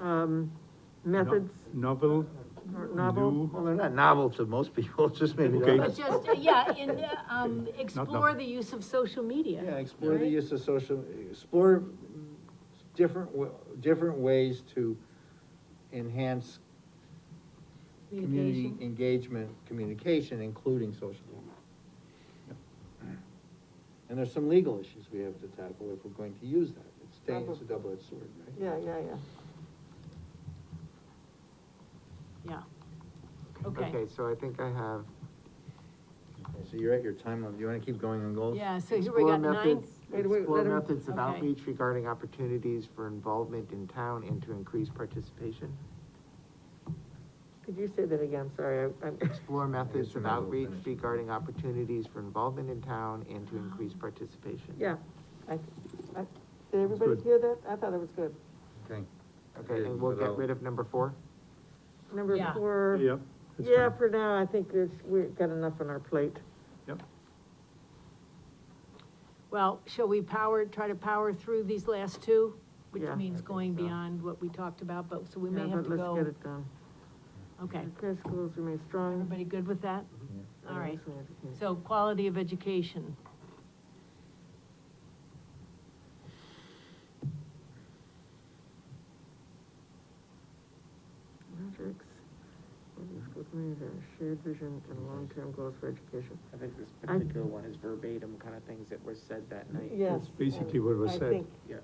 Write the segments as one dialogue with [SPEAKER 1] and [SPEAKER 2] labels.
[SPEAKER 1] um, methods,
[SPEAKER 2] Novel,
[SPEAKER 1] or novel?
[SPEAKER 2] new,
[SPEAKER 3] Well, they're not novel to most people, it's just maybe.
[SPEAKER 2] Okay.
[SPEAKER 3] they're-
[SPEAKER 1] It's just, uh, yeah, and, uh, um, explore
[SPEAKER 2] novel.
[SPEAKER 1] the use of social media.
[SPEAKER 3] Yeah, explore the
[SPEAKER 1] right?
[SPEAKER 3] use of social, explore different, wa- different ways to enhance community
[SPEAKER 1] Communication.
[SPEAKER 3] engagement, communication, including social media. And there's some legal issues we have to tackle if we're going to use that. It's dang- it's a double-edged sword, right?
[SPEAKER 4] Yeah, yeah, yeah.
[SPEAKER 1] Yeah. Okay,
[SPEAKER 4] so I think I have,
[SPEAKER 3] So you're at your time limit, you wanna keep going on goals?
[SPEAKER 1] yeah, so here we
[SPEAKER 4] explore
[SPEAKER 1] got nine,
[SPEAKER 4] methods,
[SPEAKER 5] Wait, wait,
[SPEAKER 4] explore
[SPEAKER 5] let him-
[SPEAKER 4] methods of
[SPEAKER 1] Okay.
[SPEAKER 4] outreach regarding opportunities for involvement in town and to increase participation.
[SPEAKER 5] Could you say that again, I'm sorry, I- I'm,
[SPEAKER 4] Explore methods of
[SPEAKER 3] might as well
[SPEAKER 4] outreach
[SPEAKER 3] finish.
[SPEAKER 4] regarding opportunities for involvement in town and to increase participation.
[SPEAKER 5] yeah. I- I- Did everybody hear that? I thought it was good.
[SPEAKER 3] Okay.
[SPEAKER 4] Okay, and we'll get rid of number four?
[SPEAKER 5] Number
[SPEAKER 1] Yeah.
[SPEAKER 5] four.
[SPEAKER 2] yeah. that's
[SPEAKER 5] Yeah,
[SPEAKER 2] fine.
[SPEAKER 5] for now, I think it's, we've got enough on our plate.
[SPEAKER 2] Yep,
[SPEAKER 1] well, shall we power, try to power through these last two? Which
[SPEAKER 5] Yeah. I
[SPEAKER 1] means
[SPEAKER 3] think
[SPEAKER 1] going
[SPEAKER 3] so.
[SPEAKER 1] beyond what we talked about, but, so we may
[SPEAKER 5] Yeah,
[SPEAKER 1] have
[SPEAKER 5] but
[SPEAKER 1] to
[SPEAKER 5] Let's get
[SPEAKER 1] go,
[SPEAKER 5] it done.
[SPEAKER 1] okay.
[SPEAKER 5] Care schools remain strong.
[SPEAKER 1] Everybody good with that?
[SPEAKER 5] and
[SPEAKER 1] All right,
[SPEAKER 5] excellent education.
[SPEAKER 1] so quality of education.
[SPEAKER 5] Metrics, public school communities have a shared vision and long-term goals for education.
[SPEAKER 6] I think this
[SPEAKER 5] I-
[SPEAKER 6] particular one is verbatim kind of things that were said that night.
[SPEAKER 2] That's basically what was
[SPEAKER 5] I
[SPEAKER 2] said.
[SPEAKER 5] think-
[SPEAKER 6] Yeah.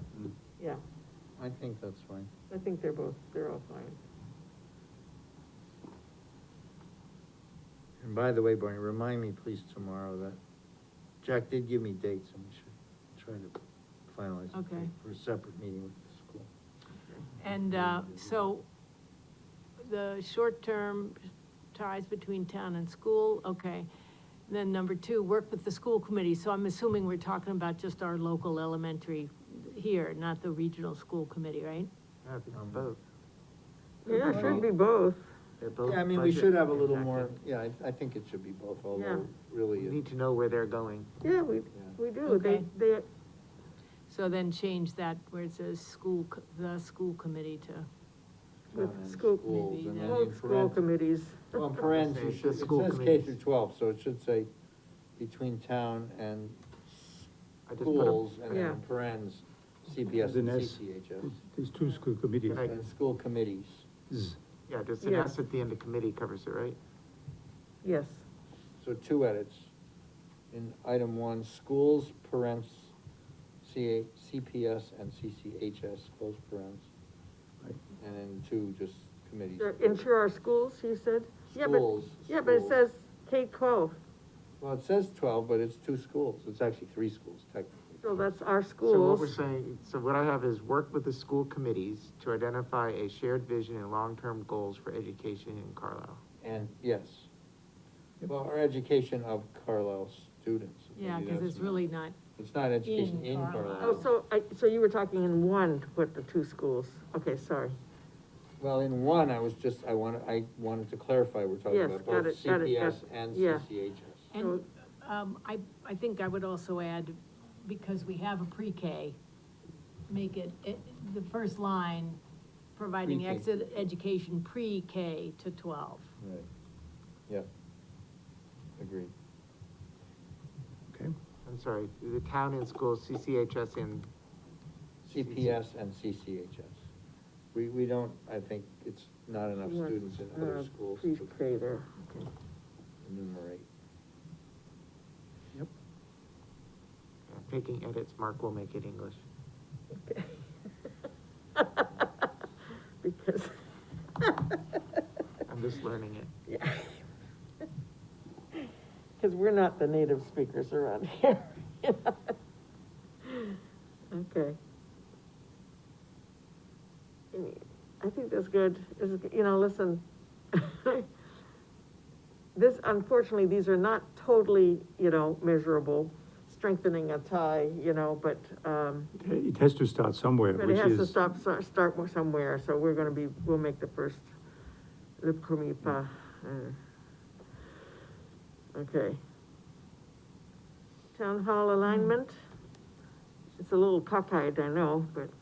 [SPEAKER 5] Yeah,
[SPEAKER 3] I think that's fine.
[SPEAKER 5] I think they're both, they're all fine.
[SPEAKER 3] And by the way, Barney, remind me please tomorrow that, Jack did give me dates and we should try to finalize. it
[SPEAKER 1] Okay.
[SPEAKER 3] For a separate meeting with the school.
[SPEAKER 1] And, uh, so, the short-term ties between town and school, okay. Then number two, work with the school committee, so I'm assuming we're talking about just our local elementary here, not the regional school committee, right?
[SPEAKER 4] No, it's
[SPEAKER 3] Um,
[SPEAKER 4] both.
[SPEAKER 5] Yeah, it should be both.
[SPEAKER 4] They're both
[SPEAKER 3] Yeah, I mean, we
[SPEAKER 4] budget
[SPEAKER 3] should have a little
[SPEAKER 4] impacted.
[SPEAKER 3] more, yeah, I, I think it should be both,
[SPEAKER 5] Yeah.
[SPEAKER 3] although really.
[SPEAKER 4] We
[SPEAKER 3] it-
[SPEAKER 4] need to know where they're going.
[SPEAKER 5] Yeah, we, we do, they,
[SPEAKER 1] Okay.
[SPEAKER 5] they,
[SPEAKER 1] So then change that where it says school, co- the school committee to,
[SPEAKER 5] with
[SPEAKER 3] uh,
[SPEAKER 5] school,
[SPEAKER 3] Schools and then
[SPEAKER 1] Well,
[SPEAKER 3] in
[SPEAKER 5] both school
[SPEAKER 3] parentheses-
[SPEAKER 5] committees.
[SPEAKER 3] Well, in parentheses,
[SPEAKER 4] Say
[SPEAKER 3] it
[SPEAKER 4] the
[SPEAKER 3] should-
[SPEAKER 4] school
[SPEAKER 3] it says K
[SPEAKER 4] committees.
[SPEAKER 3] through twelve, so it should say between town and
[SPEAKER 4] I just put
[SPEAKER 3] schools,
[SPEAKER 4] a,
[SPEAKER 3] and then in
[SPEAKER 5] Yeah.
[SPEAKER 3] parentheses, CPS and
[SPEAKER 2] Then S.
[SPEAKER 3] CCHS.
[SPEAKER 2] There's two school committees.
[SPEAKER 4] Right.
[SPEAKER 3] And school committees.
[SPEAKER 2] Z.
[SPEAKER 4] yeah, just an
[SPEAKER 5] Yeah.
[SPEAKER 4] S at the end of committee covers it, right?
[SPEAKER 5] Yes,
[SPEAKER 3] So two edits. In item one, schools, parents, CA, CPS and CCHS, close parents.
[SPEAKER 2] Right.
[SPEAKER 3] And then two, just committees.
[SPEAKER 5] They're into our schools, you said? Yeah, but-
[SPEAKER 3] Schools,
[SPEAKER 5] Yeah, but it
[SPEAKER 3] schools.
[SPEAKER 5] says K twelve,
[SPEAKER 3] Well, it says twelve, but it's two schools, it's actually three schools technically.
[SPEAKER 5] so Oh, that's our
[SPEAKER 4] So what we're
[SPEAKER 5] schools.
[SPEAKER 4] saying, so what I have is work with the school committees to identify a shared vision and long-term goals for education in Carlisle.
[SPEAKER 3] And, yes. Well, our education of Carlisle students.
[SPEAKER 1] yeah,
[SPEAKER 3] Maybe
[SPEAKER 1] cause
[SPEAKER 3] that's
[SPEAKER 1] it's really not,
[SPEAKER 3] It's not education
[SPEAKER 1] in
[SPEAKER 3] in
[SPEAKER 1] Carlisle.
[SPEAKER 3] Carlisle.
[SPEAKER 5] Oh, so I, so you were talking in one to put the two schools, okay, sorry.
[SPEAKER 3] Well, in one, I was just, I wanted, I wanted to clarify, we're talking
[SPEAKER 5] Yes,
[SPEAKER 3] about
[SPEAKER 5] got
[SPEAKER 3] both
[SPEAKER 5] it, got it, got
[SPEAKER 3] CPS
[SPEAKER 5] it.
[SPEAKER 3] and
[SPEAKER 5] Yeah.
[SPEAKER 3] CCHS.
[SPEAKER 1] and, um, I, I think I would also add, because we have a pre-K, make it, it, the first line, providing
[SPEAKER 3] Pre-K.
[SPEAKER 1] exit education pre-K to twelve.
[SPEAKER 3] Right. Yep. Agreed.
[SPEAKER 2] okay?
[SPEAKER 4] I'm sorry, the town and schools, CCHS and,
[SPEAKER 3] CPS and CCHS. We, we don't, I think it's not enough
[SPEAKER 5] You want,
[SPEAKER 3] students in other
[SPEAKER 5] uh,
[SPEAKER 3] schools
[SPEAKER 5] Please
[SPEAKER 3] to
[SPEAKER 5] pray there.
[SPEAKER 3] enumerate.
[SPEAKER 2] Yep.
[SPEAKER 4] picking edits, Mark will make it English.
[SPEAKER 5] Okay. Because.
[SPEAKER 4] I'm just learning it.
[SPEAKER 5] Because we're not the native speakers around here. Okay. I mean, I think that's good, This is, you know, listen. This, unfortunately, these are not totally, you know, measurable, strengthening a tie, you know, but, um,
[SPEAKER 2] It has to start somewhere,
[SPEAKER 5] but
[SPEAKER 2] which
[SPEAKER 5] it has to
[SPEAKER 2] is,
[SPEAKER 5] stop, so- start somewhere, so we're gonna be, we'll make the first, the premier pas. uh, Okay. Town hall alignment, it's a little cockeyed, I know, but